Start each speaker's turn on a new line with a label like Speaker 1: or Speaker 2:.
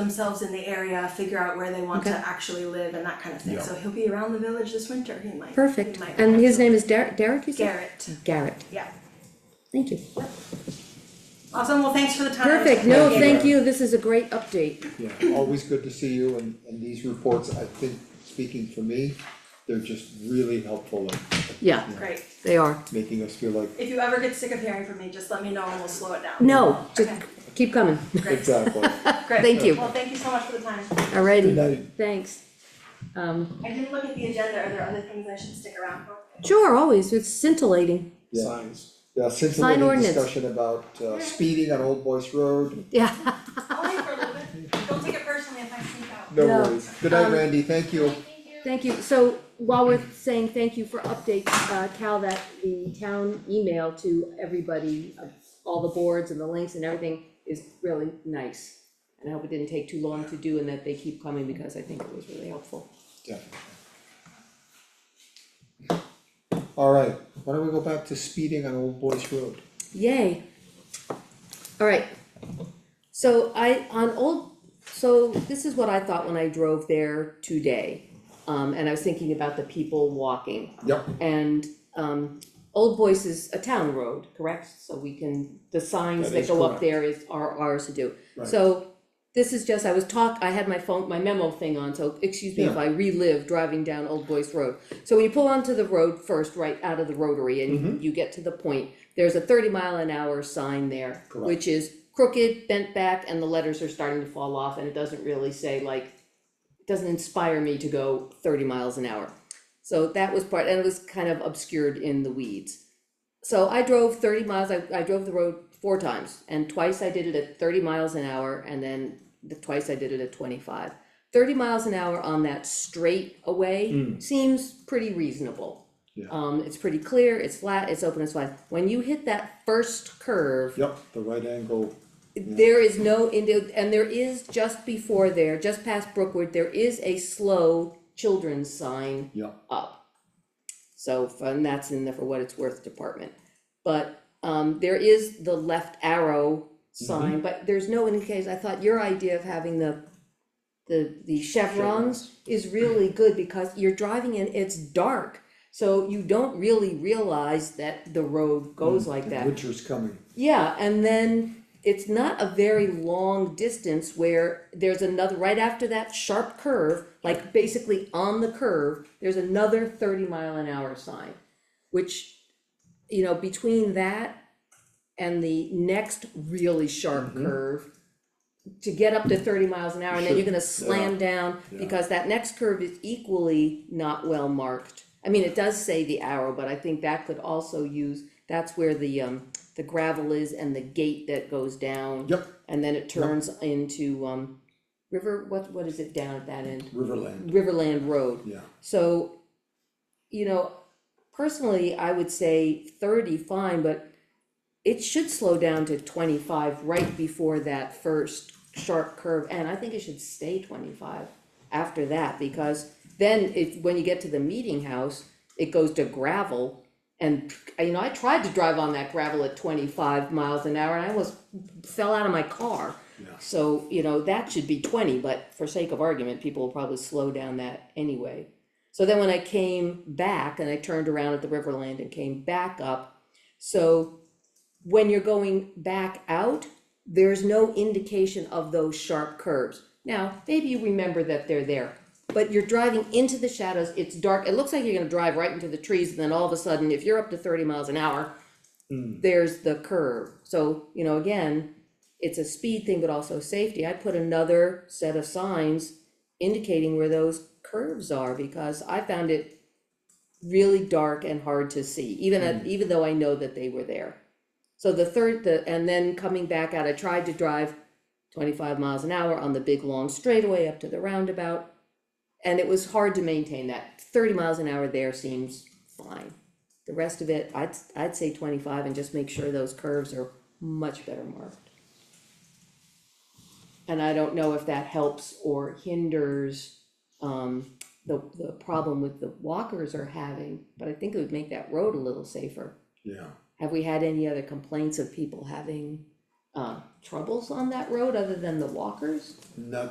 Speaker 1: themselves in the area, figure out where they want to
Speaker 2: Okay.
Speaker 1: actually live and that kind of thing.
Speaker 3: Yeah.
Speaker 1: So he'll be around the village this winter. He might.
Speaker 2: Perfect,
Speaker 1: He might
Speaker 2: and
Speaker 1: want
Speaker 2: his
Speaker 1: to.
Speaker 2: name is Derek, Derek, you said?
Speaker 1: Garrett.
Speaker 2: Garrett,
Speaker 1: Yeah.
Speaker 2: thank you.
Speaker 1: Awesome. Well, thanks for the time.
Speaker 2: Perfect, no,
Speaker 3: Thank you.
Speaker 2: thank you, this is a great update.
Speaker 3: Yeah, always good to see you and, and these reports, I think, speaking for me, they're just really helpful in
Speaker 2: Yeah,
Speaker 1: Great.
Speaker 2: they are.
Speaker 3: making us feel like,
Speaker 1: If you ever get sick of hearing from me, just let me know and we'll slow it down.
Speaker 2: No, just
Speaker 1: Okay.
Speaker 2: keep coming.
Speaker 1: Great.
Speaker 3: exactly.
Speaker 1: Great.
Speaker 2: Thank you.
Speaker 1: Well, thank you so much for the time.
Speaker 3: Good
Speaker 2: Alrighty,
Speaker 3: night.
Speaker 2: thanks. Um,
Speaker 1: I didn't look at the agenda. Are there other things I should stick around for?
Speaker 2: sure, always, it's scintillating,
Speaker 3: Yeah.
Speaker 4: signs.
Speaker 3: Yeah, since we
Speaker 2: Sign
Speaker 3: had a
Speaker 2: ordinance.
Speaker 3: discussion about uh, speeding on Old Boyce Road,
Speaker 2: yeah.
Speaker 1: Only for a little bit. Don't take it personally if I sneak out.
Speaker 3: no
Speaker 2: No.
Speaker 3: worries. Good night,
Speaker 2: Um,
Speaker 3: Randy, thank you.
Speaker 2: Thank you, so while we're saying thank you for updates, uh, Cal, that the town email to everybody, uh, all the boards and the links and everything is really nice. And I hope it didn't take too long to do and that they keep coming because I think it was really helpful.
Speaker 3: Definitely. Alright, why don't we go back to speeding on Old Boyce Road?
Speaker 2: Yay. Alright, so I, on old, so this is what I thought when I drove there today. Um, and I was thinking about the people walking.
Speaker 3: Yep.
Speaker 2: And, um, Old Boys is a town road, correct? So we can, the signs
Speaker 3: That
Speaker 2: that
Speaker 3: is
Speaker 2: go up
Speaker 3: correct.
Speaker 2: there is, are ours to do.
Speaker 3: Right.
Speaker 2: So, this is just, I was talk, I had my phone, my memo thing on, so excuse me if
Speaker 3: Yeah.
Speaker 2: I relive driving down Old Boys Road. So when you pull onto the road first, right out of the rotary,
Speaker 3: Mm-hmm.
Speaker 2: and you get to the point, there's a thirty mile an hour sign there,
Speaker 3: Correct.
Speaker 2: which is crooked, bent back, and the letters are starting to fall off, and it doesn't really say like, it doesn't inspire me to go thirty miles an hour. So that was part, and it was kind of obscured in the weeds. So I drove thirty miles, I, I drove the road four times, and twice I did it at thirty miles an hour, and then the twice I did it at twenty-five. Thirty miles an hour on that straight away seems pretty reasonable.
Speaker 3: Yeah.
Speaker 2: Um, it's pretty clear, it's flat, it's open, it's wide. When you hit that first curve,
Speaker 3: Yep, the right angle,
Speaker 2: there is no, indi- and there is just before there, just past Brookwood, there is a slow children's sign
Speaker 3: yep,
Speaker 2: up. So, and that's in the for what it's worth department. But, um, there is the left arrow sign, but there's no indication, I thought your idea of having the, the, the chevrons is really good because you're driving and it's dark. So you don't really realize that the road goes like that.
Speaker 3: winter's coming.
Speaker 2: Yeah, and then it's not a very long distance where there's another, right after that sharp curve, like basically on the curve, there's another thirty mile an hour sign. Which, you know, between that and the next really sharp curve, to get up to thirty miles an hour, and then you're gonna slam down, because that next curve is equally not well marked. I mean, it does say the arrow, but I think that could also use, that's where the um, the gravel is and the gate that goes down.
Speaker 3: Yep,
Speaker 2: And then it turns into um, river, what, what is it down at that end?
Speaker 3: Riverland,
Speaker 2: Riverland Road.
Speaker 3: yeah,
Speaker 2: So, you know, personally, I would say thirty, fine, but it should slow down to twenty-five right before that first sharp curve, and I think it should stay twenty-five after that, because then it, when you get to the meeting house, it goes to gravel. And, you know, I tried to drive on that gravel at twenty-five miles an hour, and I almost fell out of my car.
Speaker 3: Yeah.
Speaker 2: So, you know, that should be twenty, but for sake of argument, people will probably slow down that anyway. So then when I came back and I turned around at the Riverland and came back up, so when you're going back out, there's no indication of those sharp curves. Now, maybe you remember that they're there, but you're driving into the shadows, it's dark, it looks like you're gonna drive right into the trees, and then all of a sudden, if you're up to thirty miles an hour,
Speaker 3: Hmm,
Speaker 2: there's the curve, so, you know, again, it's a speed thing, but also safety, I put another set of signs indicating where those curves are, because I found it really dark and hard to see, even at, even though I know that they were there. So the third, the, and then coming back out, I tried to drive twenty-five miles an hour on the big long straightaway up to the roundabout. And it was hard to maintain that, thirty miles an hour there seems fine. The rest of it, I'd, I'd say twenty-five and just make sure those curves are much better marked. And I don't know if that helps or hinders, um, the, the problem with the walkers are having, but I think it would make that road a little safer.
Speaker 3: yeah.
Speaker 2: Have we had any other complaints of people having uh, troubles on that road other than the walkers?
Speaker 3: Not